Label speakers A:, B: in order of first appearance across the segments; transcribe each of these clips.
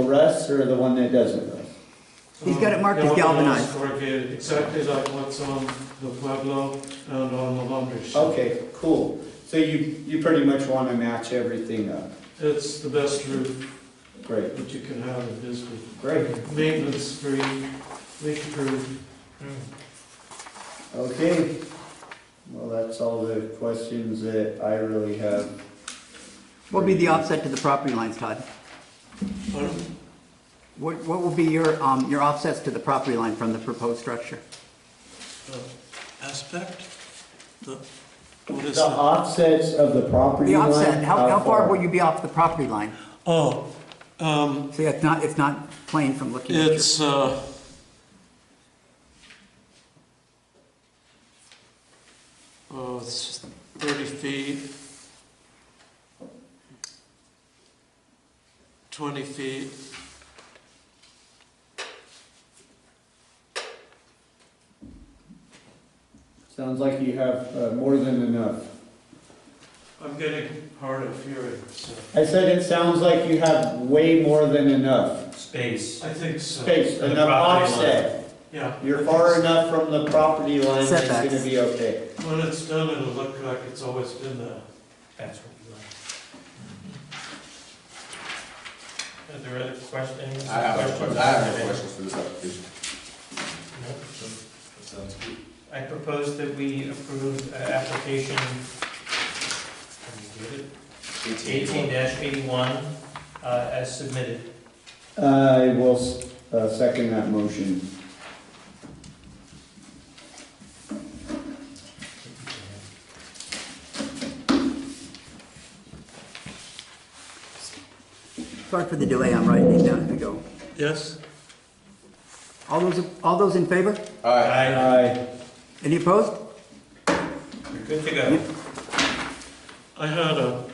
A: for us or the one that does with us?
B: He's got it marked as
C: Um,
B: galvanized.
C: galvanized, corrugated, exactly like what's on the Pueblo and on the laundry shop.
A: Okay, cool. So you, you pretty much want to match everything up.
C: It's the best roof
A: Great,
C: that you can have in this roof.
A: great.
C: Maintenance free, leak proof.
A: Okay. Well, that's all the questions that I really have.
B: What would be the offset to the property lines, Todd?
C: Pardon?
B: What, what will be your, um, your offsets to the property line from the proposed structure?
C: Aspect? The, what is
A: The
C: that?
A: offsets of the property
B: The
A: line? uh,
B: offset, how, how far will you be off the property line?
C: Oh, um,
B: See, it's not, it's not plain from looking at your.
C: it's, uh, oh, it's thirty feet. Twenty feet.
A: Sounds like you have uh, more than enough.
C: I'm getting hard of hearing, so.
A: I said it sounds like you have way more than enough
D: Space.
C: I think so.
A: space,
D: The
A: enough
D: property line.
A: offset.
C: Yeah. I
A: You're
C: think
A: far
C: so.
A: enough from the property line, that it's
B: Setbacks.
A: gonna be okay.
C: When it's done, it'll look like it's always been there.
D: That's what we like. Are there other questions?
E: I have a question, I have no questions for this application.
D: No?
E: Sounds good.
D: I propose that we approve uh, application, can you get it? Eighteen eighty-one, uh, as submitted.
A: I will s- uh, second that motion.
B: Sorry for the delay, I'm writing these down as we go.
C: Yes?
B: All those, all those in favor?
E: All right,
D: Aye.
A: Aye.
B: Any opposed?
D: You're good to go.
C: I had a,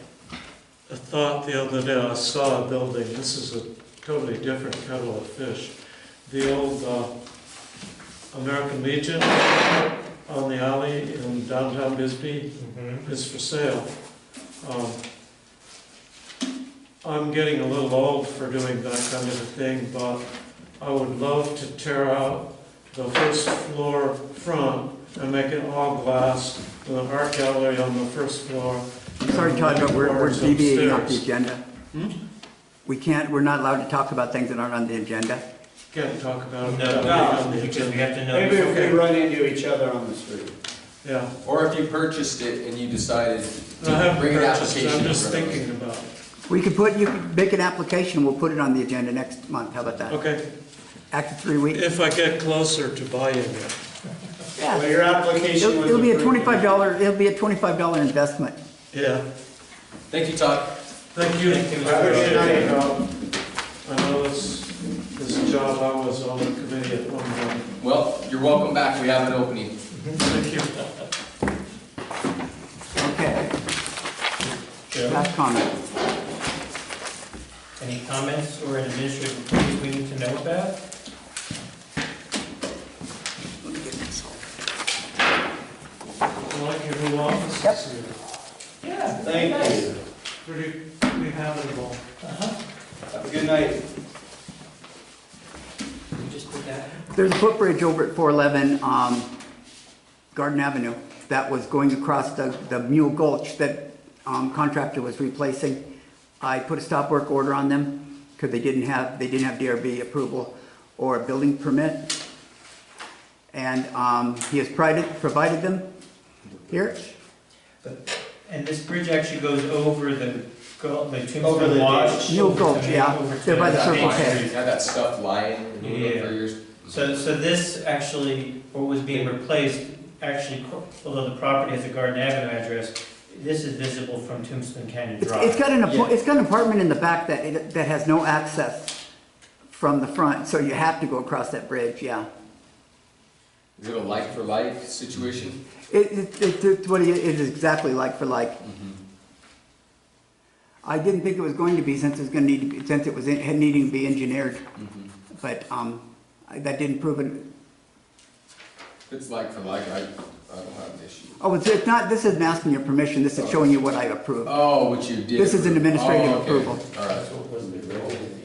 C: a thought the other day, I saw a building, this is a totally different kettle of fish. The old, uh, American Legion on the alley in downtown Bisbee
D: Mhm.
C: is for sale. Um, I'm getting a little old for doing that kind of a thing, but I would love to tear out the first floor front and make it all glass with an art gallery on the first floor.
B: I'm sorry, Todd, but we're, we're deviating off the agenda.
C: Hmm?
B: We can't, we're not allowed to talk about things that aren't on the agenda.
C: Can't talk about it.
D: No,
C: on
D: no,
C: the
D: because we
C: agenda.
D: have to know.
A: Maybe if we run into each other on the street.
C: Yeah,
E: or if you purchased it and you decided
C: I
E: to
C: haven't
E: bring an
C: purchased,
E: application.
C: I'm just
E: in front of us.
C: thinking about it.
B: We could put, you could make an application, we'll put it on the agenda next month, how about that?
C: Okay,
B: After three weeks?
C: if I get closer to buying it.
B: Yeah.
A: Well, your application
B: It'll
A: was
B: it'll be a
A: approved.
B: twenty-five dollar, it'll be a twenty-five dollar investment.
C: Yeah,
E: Thank you, Todd.
C: thank you.
D: Thank you, Mr.
A: Have a good night,
C: I Um,
A: y'all.
C: know this, this job, I was on the committee at one time.
E: Well, you're welcome back, we have an opening.
C: Thank you.
B: Okay. Last comment.
D: Any comments or administrative things we need to know about?
C: I like your new offices here,
D: Yeah.
A: Thank you.
C: pretty, pretty habitable.
A: Have a good night.
D: You just put that.
B: There's a footbridge over at four eleven, um, Garden Avenue, that was going across the, the Mule Gulch that, um, contractor was replacing. I put a stop work order on them, cause they didn't have, they didn't have DRB approval or a building permit. And, um, he has provided, provided them here.
D: But- And this bridge actually goes over the, go- the
A: Over the
D: Tombstone Wash.
B: ditch. Mule Gulch,
D: and
B: yeah.
D: over to
B: They're by the Circle
D: Main
B: K.
D: Street.
E: Had that stuff lying in the room for years.
D: So, so this actually, what was being replaced, actually, although the property has a Garden Avenue address, this is visible from Tombstone Canyon
B: It's- It's got
D: Drive.
B: an, apar-
A: Yeah.
B: it's got an apartment in the back that, it- that has no access from the front, so you have to go across that bridge, yeah.
E: Is it a like for like situation?
B: It, it, it- it's what it it is exactly like for like. I didn't think it was going to be since it was gonna need, to be- since it was in- had needing to be engineered,
E: Mhm.
B: but, um, I- that didn't prove it.
E: If it's like for like, I, I don't have an issue.
B: Oh, it's, it's not, this isn't asking your permission, this is showing you what I approve.
E: Oh, what you did.
B: This is an
E: approve.
B: administrative
E: Oh, okay.
B: approval.
E: All right.
D: That's what was the original.